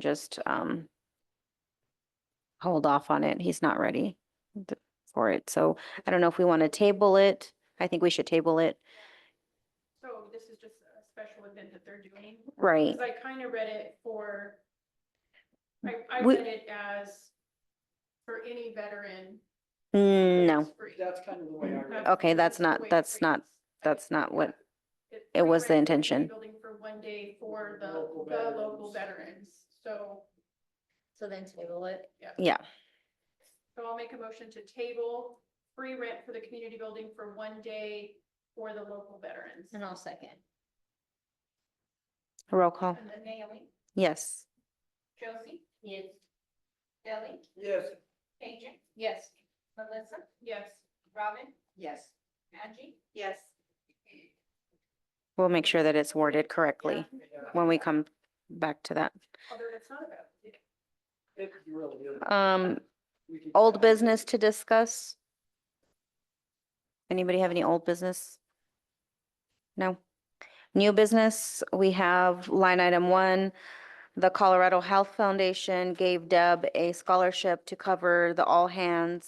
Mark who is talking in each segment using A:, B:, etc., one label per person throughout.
A: just um hold off on it. He's not ready th- for it. So I don't know if we want to table it. I think we should table it.
B: So this is just a special event that they're doing?
A: Right.
B: Because I kind of read it for, I, I
A: We-
B: read it as for any veteran.
A: Mm, No,
B: it's free.
C: That's kind of the way I read it.
A: Okay, that's
B: the
A: not-
B: way it
A: that's not-
B: reads. I
A: that's
B: didn't-
A: not what-
B: yeah.
A: it
B: free
A: was the
B: rent for
A: intention.
B: Building for one day for the,
C: Local
B: the local veterans, so,
D: So then table it.
B: yeah.
A: yeah.
B: So I'll make a motion to table free rent for the community building for one day for the local veterans.
D: And I'll second.
A: Roll call.
B: And then Naomi,
A: Yes.
B: Josie,
D: Yes.
B: Ellie,
C: Yes,
B: Adrian,
D: Yes.
B: Melissa? Yes. Robin,
D: Yes.
B: Angie? Yes.
A: We'll make sure that it's worded correctly
C: yeah,
A: when we come back to that.
B: Although that's not about. it.
C: it really is.
A: Um,
C: We could-
A: old business to discuss? Anybody have any old business? No? New business, we have line item one. The Colorado Health Foundation gave Deb a scholarship to cover the All Hands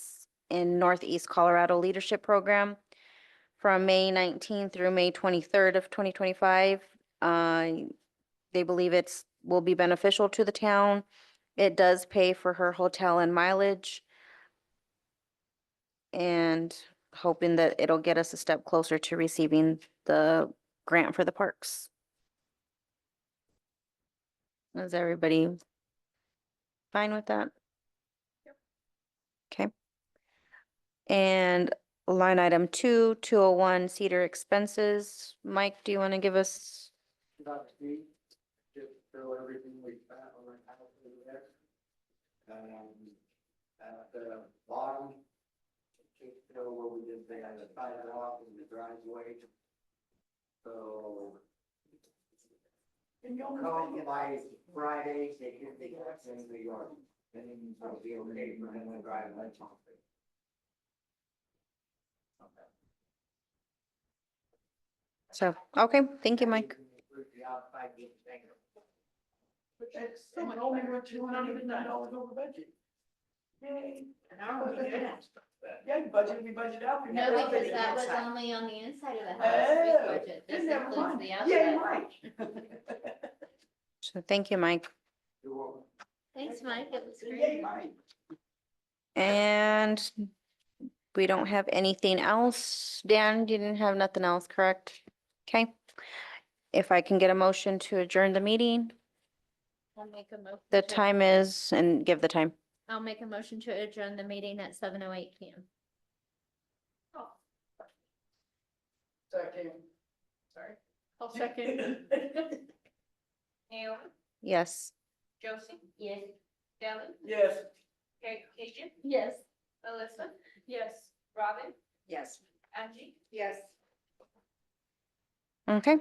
A: in Northeast Colorado Leadership Program from May 19th through May 23rd of 2025. Uh, They believe it's, will be beneficial to the town. It does pay for her hotel and mileage. And hoping that it'll get us a step closer to receiving the grant for the parks. Is everybody fine with that? Okay. And line item two, two oh one Cedar expenses. Mike, do you want to give us?
C: About to be, just throw everything we found on our house over there. Um, at the bottom, just throw what we did there, the sidewalk and the driveway. So. Come by Friday, they can be back in New York, then it'll be okay for them to drive lunch off.
A: So, okay, thank you, Mike.
C: The outside being negative.
B: It's so much better.
C: hundred and nine dollars over budget. Yay.
B: An hour we did it.
C: Yeah, you budget, we budget out.
D: No, because that was only on the inside of the house,
C: Oh,
D: street budget. This
C: then never
D: includes
C: mind.
D: the
C: Yay,
D: outside.
C: Mike.
A: So thank you, Mike.
C: You're welcome.
D: Thanks, Mike. It was
C: Yay,
D: great.
C: Mike.
A: And we don't have anything else. Dan, you didn't have nothing else, correct? Okay. If I can get a motion to adjourn the meeting,
D: I'll make a mo-
A: the
D: to-
A: time is, and give the time.
D: I'll make a motion to adjourn the meeting at seven oh eight P M.
C: Second.
B: Sorry. I'll second. Naomi,
A: Yes.
B: Josie,
D: Yes.
B: Ellie,
C: Yes.
B: Adrian,
D: Yes.
B: Melissa? Yes. Robin,
C: Yes.
B: Angie?
C: Yes.
A: Okay.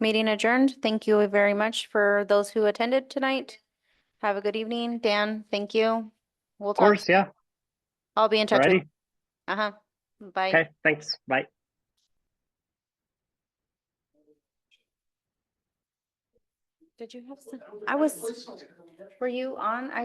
A: Meeting adjourned. Thank you very much for those who attended tonight. Have a good evening. Dan, thank you. We'll
E: Of
A: talk.
E: course, yeah.
A: I'll be in touch. with-
E: Alrighty.
A: Uh-huh. Bye.
E: Okay, thanks. Bye.
A: Did you have some, I was, were you on? I